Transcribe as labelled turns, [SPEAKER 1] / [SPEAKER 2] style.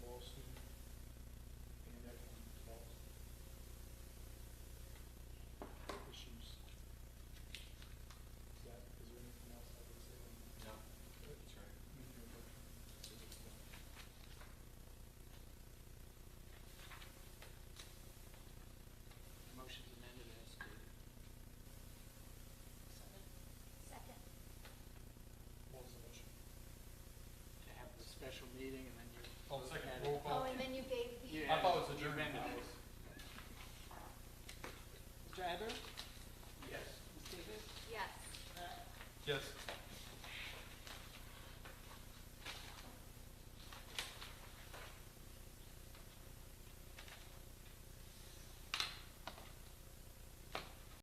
[SPEAKER 1] Oh, the second roll
[SPEAKER 2] Oh,
[SPEAKER 1] call.
[SPEAKER 2] and then you gave the.
[SPEAKER 1] I thought it was
[SPEAKER 3] You
[SPEAKER 1] adjourned.
[SPEAKER 3] amended it.
[SPEAKER 4] Mr. Adler?
[SPEAKER 3] Yes.
[SPEAKER 4] Ms. Davis?
[SPEAKER 2] Yes.
[SPEAKER 4] Matt?
[SPEAKER 1] Yes.